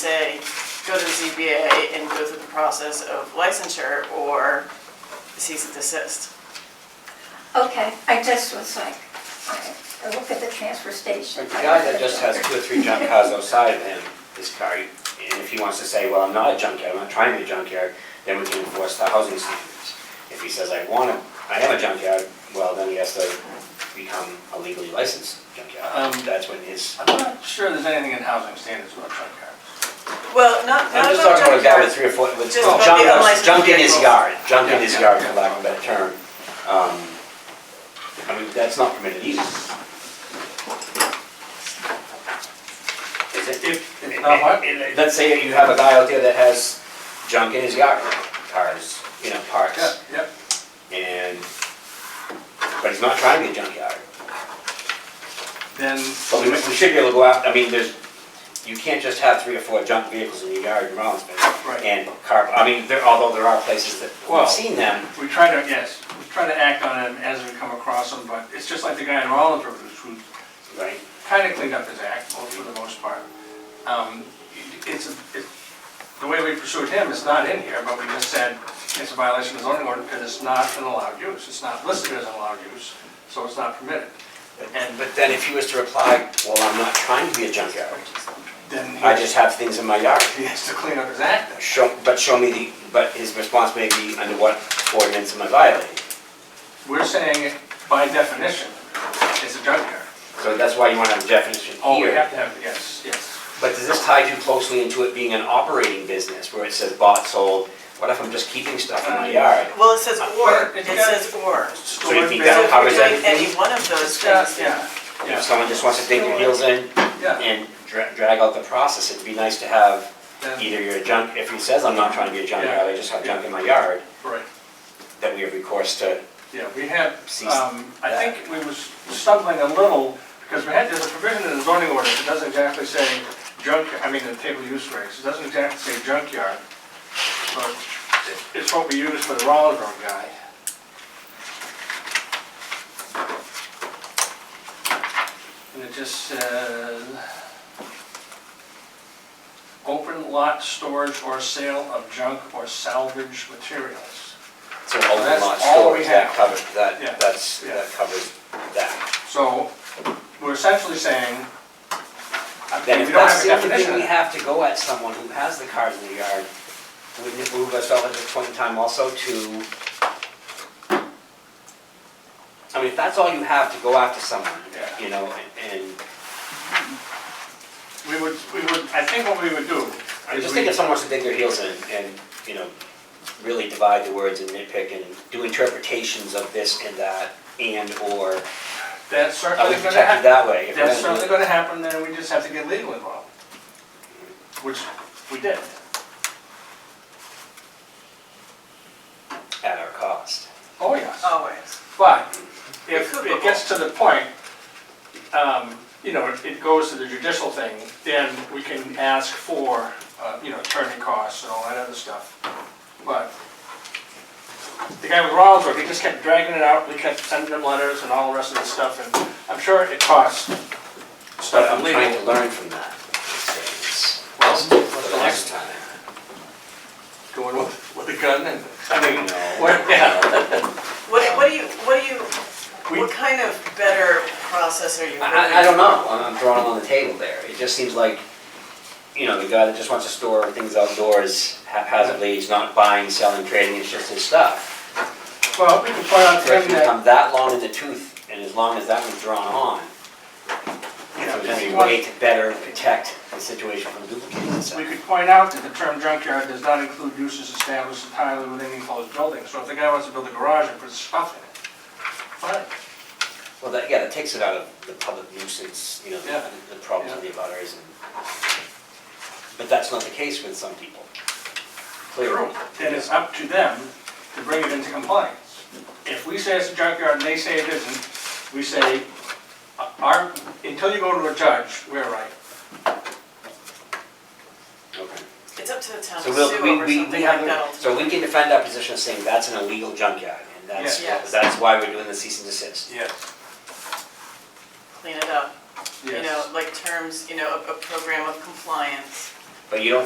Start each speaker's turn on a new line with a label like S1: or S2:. S1: say, go to the ZBA and go through the process of licensure or cease and desist.
S2: Okay, I just was like, I I look at the transfer
S3: The
S2: station.
S3: guy that just has two or three junk cars outside of him is car, and if he wants to say, well, I'm not a junkyard, I'm not trying to be a junkyard, then we can enforce the housing standards. If he says, I want to, I am a junkyard, well, then he has to become a legally licensed junkyard.
S4: Um,
S3: That's when his,
S4: I'm not sure there's anything in housing standards about junk cars.
S1: Well, not,
S3: I'm
S1: not
S3: just talking about a
S1: about
S3: guy
S1: junkyard.
S3: with three or four, with
S1: Just about
S3: junk, uh,
S1: the unlicensed
S3: junk in his
S1: vehicles.
S3: yard, junk in his
S4: Yeah.
S3: yard, for lack of a better term. Um, I mean, that's not permitted either. Is it?
S4: If, if not what?
S3: And Let's say you have a guy out there that has junk in his yard, cars, you know,
S4: Yeah,
S3: parts,
S4: yeah.
S3: and, but he's not trying to be a junkyard.
S4: Then,
S3: But we, we should be able to go out, I mean, there's, you can't just have three or four junk vehicles in your yard in Rollinsford.
S4: Right.
S3: And car, I mean, there, although there are places that,
S4: Well-
S3: we've seen them,
S4: we try to, yes, we try to act on them as we come across them, but it's just like the guy in Rollinsford who's- who
S3: right?
S4: kind of cleaned up his act, well, for the most part. Um, It's, it- the way we pursued him is not in here, but we just said it's a violation of the zoning ordinance because it's not an allowed use. It's not listed as an allowed use, so it's not permitted.
S3: And, but then if he was to reply, well, I'm not trying to be a junkyard,
S4: Then
S3: I
S4: he
S3: just have things in my yard.
S4: he has to clean up his act then.
S3: Show, but show me the, but his response may be, under what ordinance am I violating?
S4: We're saying by definition, it's a junkyard.
S3: So that's why you want to have a definition
S4: Oh, we
S3: here.
S4: have to have, yes, yes.
S3: But does this tie too closely into it being an operating business where it says bought, sold? What if I'm just keeping stuff in my yard?
S1: Well, it says or,
S4: But
S1: it
S4: it's got-
S1: says or.
S3: So you think
S1: So
S3: that
S1: if
S3: covers
S1: you're doing
S3: everything?
S1: any one of those
S4: It's got-
S1: things,
S4: Yeah,
S3: If
S4: yeah,
S3: someone just wants to dig their heels in
S4: yeah.
S3: and dra- drag out the process, it'd be nice to have
S4: Then-
S3: either your junk, if he says, I'm not trying to be a junkyard, I just have junk in my yard,
S4: Right.
S3: that we have recourse to.
S4: Yeah, we had,
S3: Cease
S4: um, I
S3: that.
S4: think we was stumbling a little, because we had, there's a provision in the zoning ordinance, that doesn't exactly say junk, I mean, the table use regs, it doesn't exactly say junkyard. But it- it's what we use for the Rollins Road guy. And it just says, open lot storage or sale of junk or salvage materials.
S3: So open
S4: That's
S3: lot
S4: all we
S3: storage, that
S4: have.
S3: covers, that,
S4: Yeah.
S3: that's,
S4: Yeah.
S3: that covers that.
S4: So we're essentially saying, I
S3: Then
S4: mean,
S3: if
S4: we don't
S3: that's
S4: have a
S3: the only
S4: definition.
S3: thing we have to go at someone who has the cars in the yard, wouldn't it move us all at this point in time also to? I mean, if that's all you have to go after someone,
S4: Yeah.
S3: you know, and, and
S4: We would, we would, I think what we would do
S3: I
S4: is
S3: just
S4: we,
S3: think if someone wants to dig their heels in and, you know, really divide the words and nitpick and do interpretations of this and that and or, uh,
S4: that's
S3: I
S4: certainly
S3: would
S4: gonna
S3: protect it
S4: happen.
S3: that way. if we're
S4: That's
S3: gonna do
S4: certainly
S3: it.
S4: gonna happen, then we just have to get legal involved, which we did.
S3: At our cost.
S4: Oh, yes.
S1: always.
S4: But
S1: It
S4: if
S1: could be
S4: it gets to the point, um, you know, it- it goes to the judicial thing, then we can ask for, uh, you know, attorney costs and all that other stuff. But the guy with Rollinsford, he just kept dragging it out, we kept sending him letters and all the rest of the stuff, and I'm sure it costs
S3: But
S4: stuff
S3: I'm trying
S4: illegal.
S3: to learn from that experience.
S4: Well,
S3: For the next time.
S4: Going with, with a gun and, I
S3: You
S4: mean,
S3: know,
S4: what, yeah.
S1: What, what do you, what do you,
S4: We-
S1: what kind of better process are you?
S3: I, I- I don't know, I'm I'm throwing it on the table there, it just seems like, you know, the guy that just wants to store things outdoors haphazardly, he's not buying, selling, trading, it's just his stuff.
S4: Well, we can point out
S3: For
S4: to
S3: it
S4: him
S3: to
S4: that,
S3: become that long in the tooth, and as long as that one's drawn on, So
S4: you know,
S3: there's
S4: if
S3: any
S4: you want-
S3: way to better protect the situation from duplicating
S4: We
S3: itself.
S4: could point out that the term junkyard does not include uses established entirely within enclosed buildings. So if the guy wants to build a garage and put stuff in it, fine.
S3: Well, that, yeah, that takes it out of the public nuisance, you know,
S4: Yeah.
S3: the- the problems of the abutters and. But that's not the case with some people. Clearly.
S4: Then it's up to them to bring it into compliance. If we say it's a junkyard and they say it isn't, we say, uh, our, until you go to a judge, we're right.
S3: Okay.
S1: It's up to the town to
S3: So
S1: sue
S3: we'll, we,
S1: over
S3: we, we
S1: something like
S3: have,
S1: that.
S3: so we can defend our position of saying that's an illegal junkyard, and that's,
S1: Yeah. Yes.
S3: that's why we're doing the cease and desist.
S4: Yes.
S1: Clean it up. You know,
S4: Yes.
S1: like terms, you know, a, a program of compliance,
S3: But you don't